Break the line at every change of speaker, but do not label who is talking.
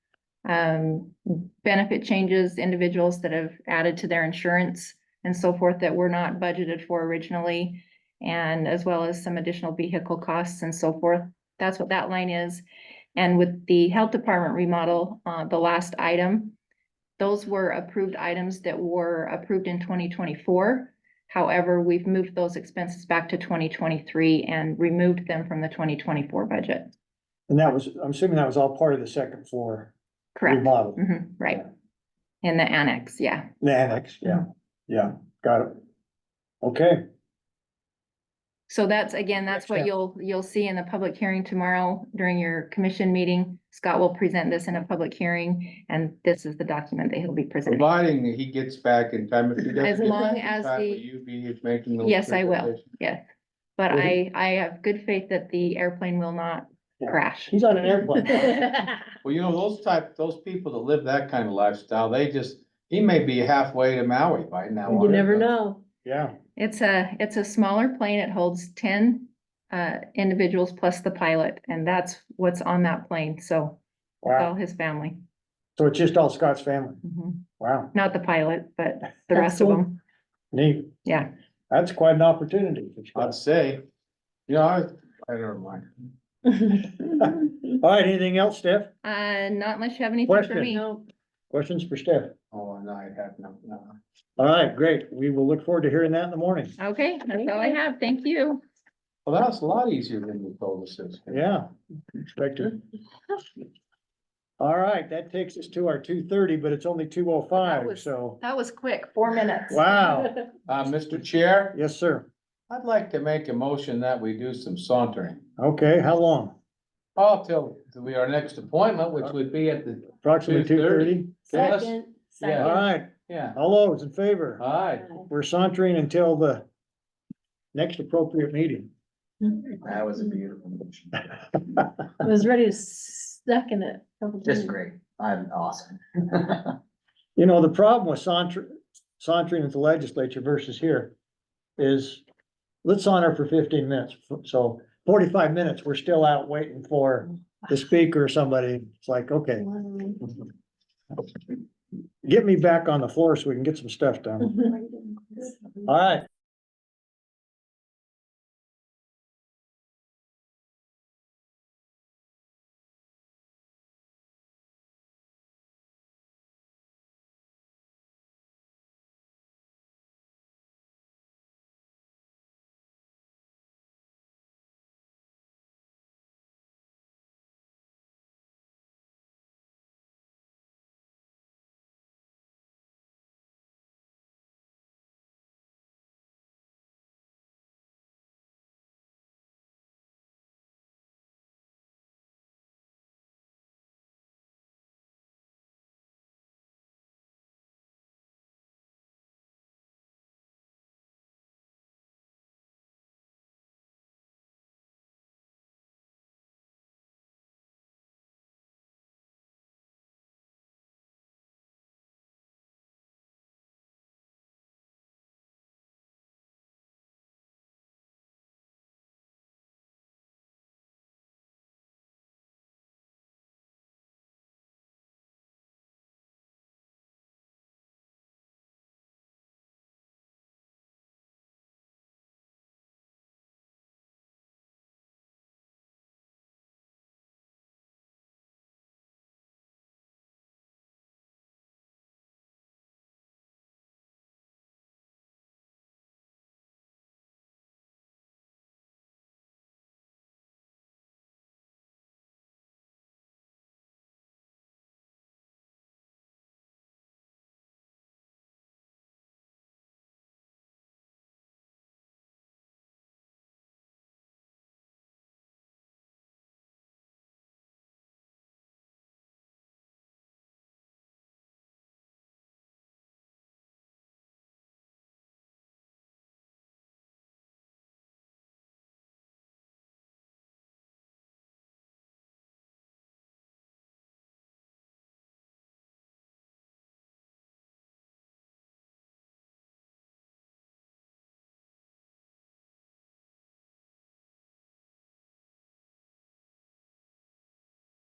um, benefit changes, individuals that have added to their insurance and so forth that were not budgeted for originally, and as well as some additional vehicle costs and so forth. That's what that line is. And with the health department remodel, uh, the last item, those were approved items that were approved in twenty twenty-four. However, we've moved those expenses back to twenty twenty-three and removed them from the twenty twenty-four budget.
And that was, I'm assuming that was all part of the second floor
Correct?
remodel,
Mhm, right.
Yeah.
In the annex, yeah.
the annex,
Mm-hmm.
yeah, yeah, got it. Okay,
So that's, again, that's what
Gotcha.
you'll, you'll see in the public hearing tomorrow during your commission meeting. Scott will present this in a public hearing, and this is the document that he'll be presenting.
Providing that he gets back in time, if he doesn't.
As
get
long
back in
as
time,
the-
will You be making the.
Yes, I will. Yes, but
Will
I,
he-
I have good faith that the airplane will not
Yeah.
crash.
he's on an airplane.
Well, you know, those type, those people that live that kind of lifestyle, they just, he may be halfway to Maui by now. uh,
You never know.
Yeah,
It's a, it's a smaller plane. It holds ten uh individuals plus the pilot, and that's what's on that plane, so it's all
wow.
his family.
So it's just all Scott's family.
Mhm.
Wow,
Not the pilot, but the
That's
rest of
cool.
them.
neat.
Yeah.
That's quite an opportunity. for
I'd
Scott.
say, you know, I, I don't mind.
All right, anything else, Steph?
Uh, not unless you have anything for
Question.
me.
No,
Questions for Steph?
Oh, and I have no, no.
All right, great. We will look forward to hearing that in the morning.
Okay, that's all I
Thank you.
have. Thank you.
Well, that's a lot easier than you told us. it's gonna be.
Yeah, expected. All right, that takes us to our two thirty, but it's only two oh
That
five,
was-
so,
That was quick, four minutes.
wow.
Uh, Mr. Chair,
Yes, sir.
I'd like to make a motion that we do some sauntering.
Okay, how long?
Oh, till, till we, our next appointment, which would be at the,
Approximately two
2:30?
thirty?
Yes.
Second,
All
second.
right,
yeah,
all those in favor?
aye.
We're sauntering until the next appropriate meeting.
That was a beautiful motion.
I was ready to second it.
Just great. I'm awesome.
You know, the problem with saunter, sauntering at the legislature versus here is let's saunter for fifteen minutes. So forty-five minutes, we're still out waiting for the speaker or somebody. It's like, okay,
Mm-hmm.
get me back on the floor so we can get some stuff done. All right,